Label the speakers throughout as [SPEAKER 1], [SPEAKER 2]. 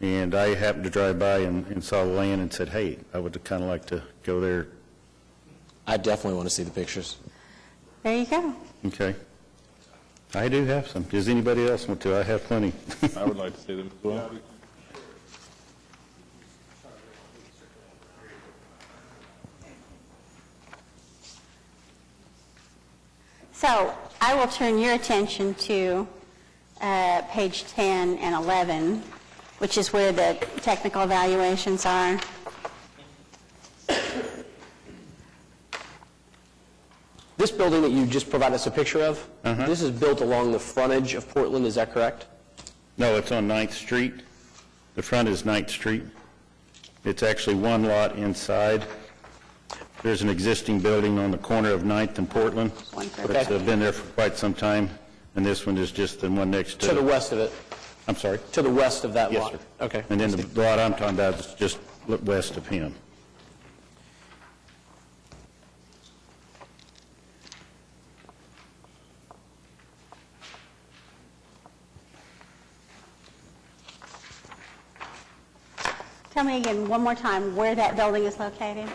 [SPEAKER 1] And I happened to drive by and, and saw the land and said, hey, I would kind of like to go there.
[SPEAKER 2] I definitely want to see the pictures.
[SPEAKER 3] There you go.
[SPEAKER 1] Okay. I do have some. Does anybody else want to? I have plenty.
[SPEAKER 4] I would like to see them as well.
[SPEAKER 3] So I will turn your attention to uh, page 10 and 11, which is where the technical evaluations are.
[SPEAKER 2] This building that you just provided us a picture of,
[SPEAKER 1] Uh-huh.
[SPEAKER 2] this is built along the frontage of Portland, is that correct?
[SPEAKER 1] No, it's on Ninth Street. The front is Ninth Street. It's actually one lot inside. There's an existing building on the corner of Ninth and Portland.
[SPEAKER 3] One for-
[SPEAKER 1] It's uh, been there for quite some time, and this one is just the one next
[SPEAKER 2] To the
[SPEAKER 1] to.
[SPEAKER 2] west of it,
[SPEAKER 1] I'm sorry?
[SPEAKER 2] to the west of that
[SPEAKER 1] Yes,
[SPEAKER 2] lot?
[SPEAKER 1] sir.
[SPEAKER 2] Okay.
[SPEAKER 1] And then the lot I'm talking about is just l- west of him.
[SPEAKER 3] Tell me again, one more time, where that building is located?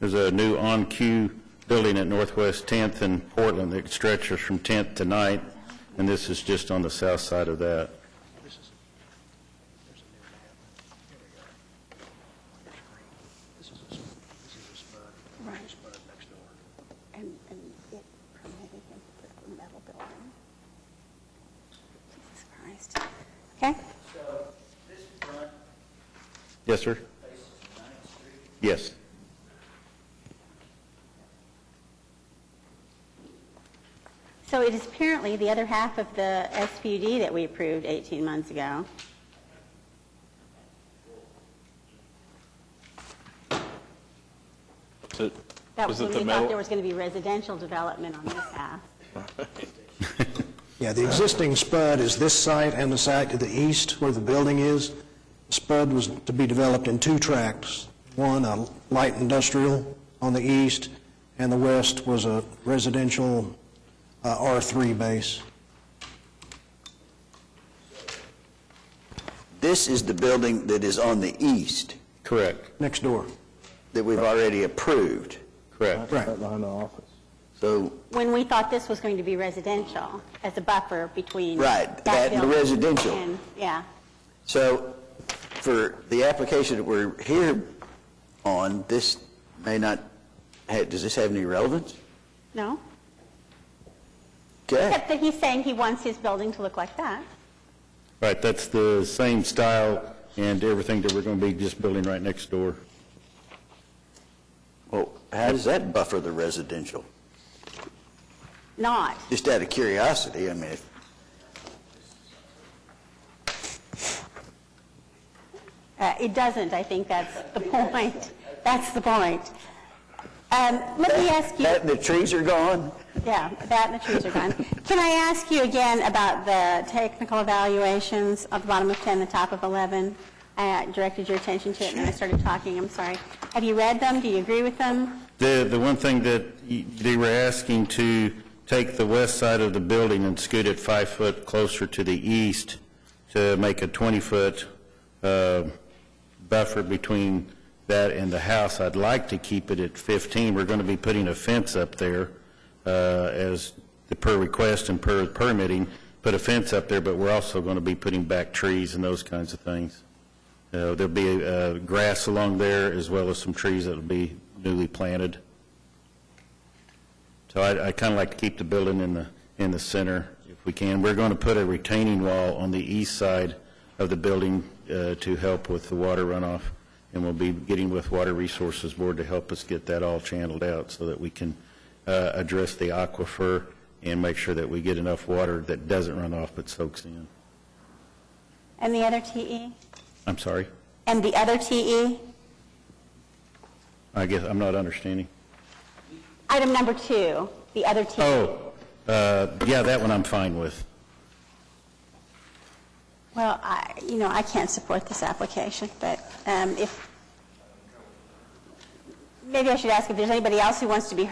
[SPEAKER 1] There's a new on-queue building at Northwest 10th and Portland that stretches from 10th to 9th, and this is just on the south side of that.
[SPEAKER 3] And, and it permitted him to put a metal building. Jesus Christ. Okay?
[SPEAKER 1] Yes, sir? Yes.
[SPEAKER 3] So it is apparently the other half of the SPUD that we approved 18 months ago.
[SPEAKER 4] Is it-
[SPEAKER 3] That
[SPEAKER 4] is
[SPEAKER 3] was
[SPEAKER 4] it
[SPEAKER 3] when
[SPEAKER 4] the
[SPEAKER 3] we
[SPEAKER 4] metal-
[SPEAKER 3] thought there was going to be residential development on this half.
[SPEAKER 5] Yeah, the existing spud is this site and the site to the east where the building is. Spud was to be developed in two tracts, one a light industrial on the east, and the west was a residential uh, R3 base.
[SPEAKER 6] This is the building that is on the east
[SPEAKER 1] Correct,
[SPEAKER 5] Next door.
[SPEAKER 6] that we've already approved.
[SPEAKER 1] correct.
[SPEAKER 5] Right.
[SPEAKER 4] Behind the office.
[SPEAKER 6] So,
[SPEAKER 3] When we thought this was going to be residential, as a buffer between.
[SPEAKER 6] Right, that and the
[SPEAKER 3] building
[SPEAKER 6] residential.
[SPEAKER 3] and- Yeah,
[SPEAKER 6] so for the application that we're here on, this may not, ha- does this have any relevance?
[SPEAKER 3] no?
[SPEAKER 6] Okay.
[SPEAKER 3] Except that he's saying he wants his building to look like that.
[SPEAKER 1] Right, that's the same style and everything that we're going to be just building right next door.
[SPEAKER 6] Well, how does that buffer the residential?
[SPEAKER 3] Not.
[SPEAKER 6] Just out of curiosity, I mean, if-
[SPEAKER 3] Uh, It doesn't, I think that's the point. That's the point. Um, Let me ask you,
[SPEAKER 6] that and the trees are gone?
[SPEAKER 3] yeah, that and the trees are gone. Can I ask you again about the technical evaluations at the bottom of 10, the top of 11? I uh, directed your attention to it, and then I started talking, I'm sorry. Have you read them? Do you agree with them?
[SPEAKER 1] The, the one thing that y- they were asking to take the west side of the building and scoot it five foot closer to the east to make a 20-foot buffer between that and the house. I'd like to keep it at 15. We're going to be putting a fence up there uh, as the per request and per permitting, put a fence up there, but we're also going to be putting back trees and those kinds of things. Uh, There'll be uh, grass along there, as well as some trees that'll be newly planted. So I kind of like to keep the building in the, in the center if we can. We're going to put a retaining wall on the east side of the building uh, to help with the water runoff, and we'll be getting with Water Resources Board to help us get that all channeled out so that we can uh, address the aquifer and make sure that we get enough water that doesn't run off but soaks in.
[SPEAKER 3] And the other E? TE?
[SPEAKER 1] I'm sorry,
[SPEAKER 3] And the other E? TE?
[SPEAKER 1] I guess I'm not understanding.
[SPEAKER 3] Item number two, the other E. TE.
[SPEAKER 1] Oh, uh, yeah, that one I'm fine with.
[SPEAKER 3] Well, I, you know, I can't support this application, but um, if, maybe I should ask if there's anybody else who wants to be heard